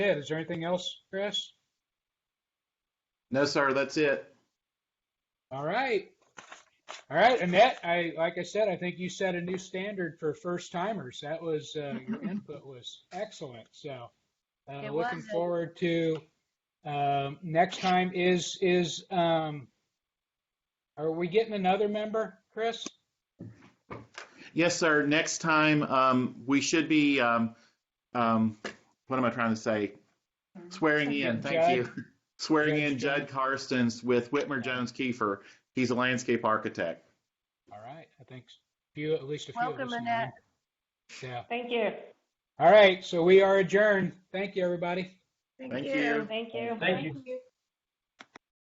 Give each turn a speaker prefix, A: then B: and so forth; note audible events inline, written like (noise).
A: it. Is there anything else, Chris?
B: No, sir, that's it.
A: All right. All right, Annette, I, like I said, I think you set a new standard for first timers. That was,
C: (laughs)
A: uh, your input was excellent, so. Uh,
C: It
A: looking
C: was.
A: forward to, um, next time is, is, um, are we getting another member, Chris?
B: Yes, sir. Next time, um, we should be, um, um, what am I trying to say? Swearing in, thank you. Swearing in Judd Karstens with Whitmer Jones Kiefer. He's a landscape architect.
A: All right, I think a few, at least a few of
C: Welcome,
A: us know him.
C: Annette.
A: Yeah.
D: Thank you.
A: All right, so we are adjourned. Thank you, everybody.
B: Thank you.
D: Thank you.
E: Thank you.
C: you.